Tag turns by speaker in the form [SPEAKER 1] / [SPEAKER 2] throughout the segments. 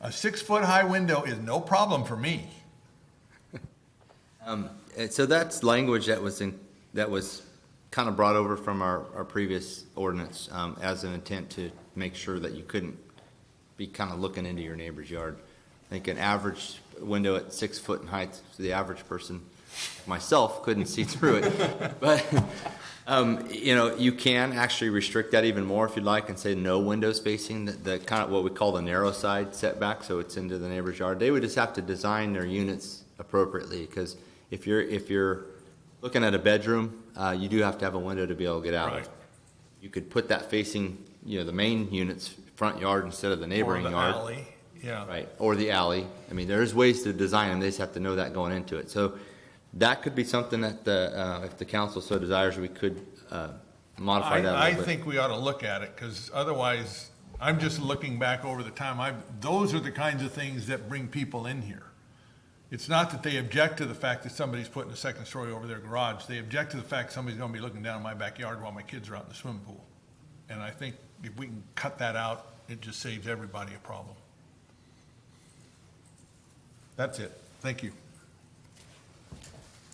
[SPEAKER 1] A six-foot-high window is no problem for me.
[SPEAKER 2] Uh, So that's language that was in, that was kind of brought over from our, our previous ordinance, um, as an intent to make sure that you couldn't be kind of looking into your neighbor's yard. I think an average window at six foot in height, to the average person, myself, couldn't see through it. But, um, you know, you can actually restrict that even more if you'd like and say no windows facing the, the kind of what we call the narrow side setback, so it's into the neighbor's yard. They would just have to design their units appropriately, because if you're, if you're looking at a bedroom, uh, you do have to have a window to be able to get out.
[SPEAKER 1] Right.
[SPEAKER 2] You could put that facing, you know, the main unit's front yard instead of the neighboring
[SPEAKER 1] Or the
[SPEAKER 2] yard.
[SPEAKER 1] alley, Yeah.
[SPEAKER 2] Right, or the alley. I mean, there's ways to design them, they just have to know that going into it. So that could be something that the, uh, if the council so desires, we could, uh, modify that a
[SPEAKER 1] I, I
[SPEAKER 2] little bit.
[SPEAKER 1] think we ought to look at it, because otherwise, I'm just looking back over the time, I, those are the kinds of things that bring people in here. It's not that they object to the fact that somebody's putting a second story over their garage, they object to the fact somebody's gonna be looking down in my backyard while my kids are out in the swimming pool. And I think if we can cut that out, it just saves everybody a problem. That's it, thank you.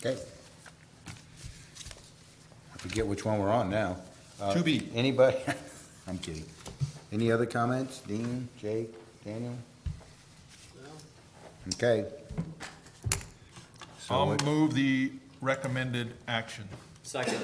[SPEAKER 3] Okay. I forget which one we're on now. Uh,
[SPEAKER 1] 2B.
[SPEAKER 3] Anybody? I'm kidding. Any other comments? Dean, Jake, Daniel? Okay. So
[SPEAKER 1] I'll
[SPEAKER 3] what-
[SPEAKER 1] move the recommended action.
[SPEAKER 4] Second.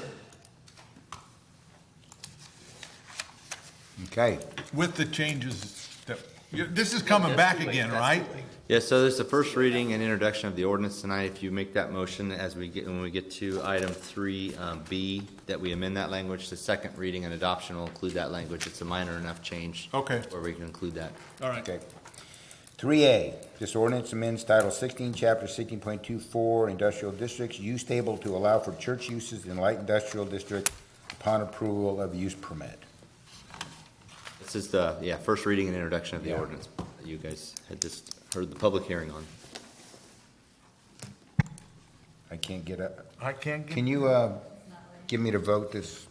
[SPEAKER 3] Okay,
[SPEAKER 1] With the changes that, you- this is coming back again, right?
[SPEAKER 2] Yeah, so there's the first reading and introduction of the ordinance tonight. If you make that motion as we get, when we get to item three, um, B, that we amend that language, the second reading and adoption will include that language. It's a minor enough change.
[SPEAKER 1] Okay.
[SPEAKER 2] Where we can include that.
[SPEAKER 1] All right.
[SPEAKER 3] okay. Three A, this ordinance amends Title sixteen, Chapter sixteen point two four, Industrial Districts, Use Table to allow for church uses in light industrial district upon approval of use permit.
[SPEAKER 2] This is the, yeah, first reading and introduction of the
[SPEAKER 3] Yeah.
[SPEAKER 2] ordinance that you guys had just heard the public hearing on.
[SPEAKER 3] I can't get up.
[SPEAKER 1] I can't get,
[SPEAKER 3] Can you, uh, give me the vote this,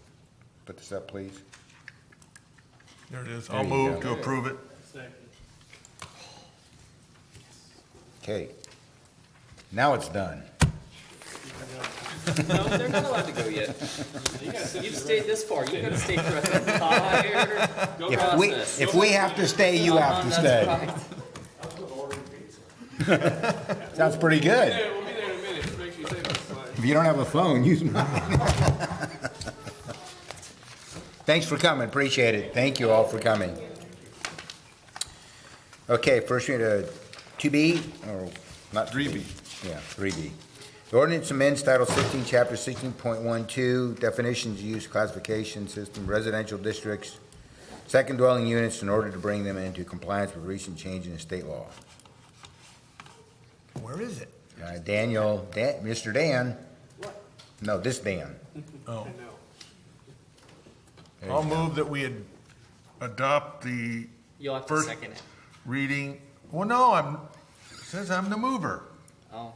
[SPEAKER 3] put this up, please?
[SPEAKER 1] there it is.
[SPEAKER 3] There
[SPEAKER 1] I'll
[SPEAKER 3] you
[SPEAKER 1] move to
[SPEAKER 3] go.
[SPEAKER 1] approve it.
[SPEAKER 3] Okay. Now it's done.
[SPEAKER 4] No, they're not allowed to go yet. You've stayed this far, you gotta stay through the entire go
[SPEAKER 3] If we,
[SPEAKER 4] process.
[SPEAKER 3] if we have to stay, you have to
[SPEAKER 4] That's
[SPEAKER 3] stay.
[SPEAKER 4] right.
[SPEAKER 3] Sounds pretty good.
[SPEAKER 5] Yeah, we'll be there in a minute, make sure you take us. Bye.
[SPEAKER 3] If you don't have a phone, use mine. Thanks for coming, appreciate it. Thank you all for coming. Okay, first read, uh, two B, or not?
[SPEAKER 1] 3B.
[SPEAKER 3] Yeah, three B. The ordinance amends Title sixteen, Chapter sixteen point one two, definitions, use, classification system, residential districts, second dwelling units in order to bring them into compliance with recent change in the state law.
[SPEAKER 1] Where is it?
[SPEAKER 3] Uh, Daniel, Dan, Mr. Dan. No, this Dan.
[SPEAKER 1] Oh.
[SPEAKER 3] There you
[SPEAKER 1] I'll
[SPEAKER 3] go.
[SPEAKER 1] move that we ad- adopt the
[SPEAKER 4] You'll have to
[SPEAKER 1] First-
[SPEAKER 4] second it.
[SPEAKER 1] reading, well, no, I'm, it says I'm the mover.
[SPEAKER 4] Oh,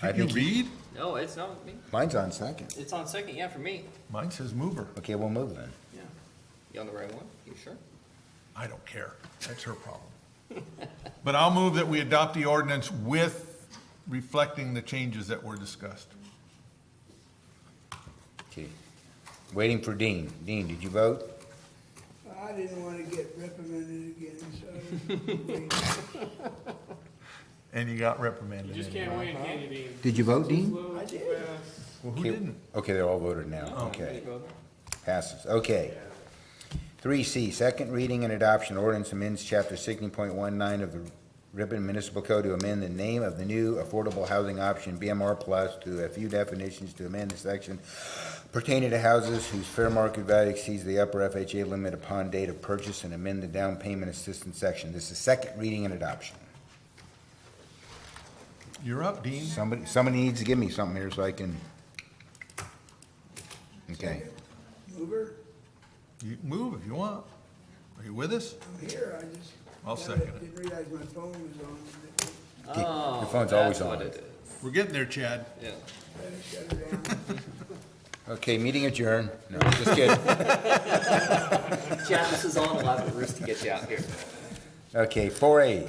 [SPEAKER 3] I
[SPEAKER 1] Can you
[SPEAKER 3] think-
[SPEAKER 1] read?
[SPEAKER 4] no, it's not me,
[SPEAKER 3] Mine's on second.
[SPEAKER 4] it's on second, yeah, for me.
[SPEAKER 1] Mine says mover.
[SPEAKER 3] Okay, we'll move then.
[SPEAKER 4] You on the right one, you sure?
[SPEAKER 1] I don't care. That's her problem. But I'll move that we adopt the ordinance with reflecting the changes that were discussed.
[SPEAKER 3] Okay. Waiting for Dean. Dean, did you vote?
[SPEAKER 6] I didn't want to get reprimanded again, so.
[SPEAKER 1] And you got reprimanded.
[SPEAKER 5] You just
[SPEAKER 1] anyway.
[SPEAKER 5] can't win, can you, Dean?
[SPEAKER 3] Did you vote, Dean?
[SPEAKER 5] Slow,
[SPEAKER 6] I did.
[SPEAKER 5] fast.
[SPEAKER 1] Well, who didn't?
[SPEAKER 3] Okay, they're all voted now. Okay, passes. Okay. Three C, second reading and adoption ordinance amends chapter sixteen point one nine of the Ripon Municipal Code to amend the name of the new affordable housing option, BMR plus, to a few definitions to amend the section pertaining to houses whose fair market value exceeds the upper FHA limit upon date of purchase and amend the down payment assistance section. This is second reading and adoption.
[SPEAKER 1] You're up, Dean.
[SPEAKER 3] Somebody, somebody needs to give me something here so I can. Okay,
[SPEAKER 6] Mover,
[SPEAKER 1] You can move if you want. Are you with us?
[SPEAKER 6] I'm here, I just.
[SPEAKER 1] I'll second it.
[SPEAKER 6] Didn't realize my phone was on,
[SPEAKER 4] Oh,
[SPEAKER 3] Your phone's always
[SPEAKER 4] that's what
[SPEAKER 3] on.
[SPEAKER 4] it is.
[SPEAKER 1] We're getting there, Chad.
[SPEAKER 4] Yeah.
[SPEAKER 6] I had to shut it down.
[SPEAKER 3] okay, meeting adjourned. No, just kidding.
[SPEAKER 4] Chad, this is all an elaborate ruse to get you out here.
[SPEAKER 3] Okay, four A,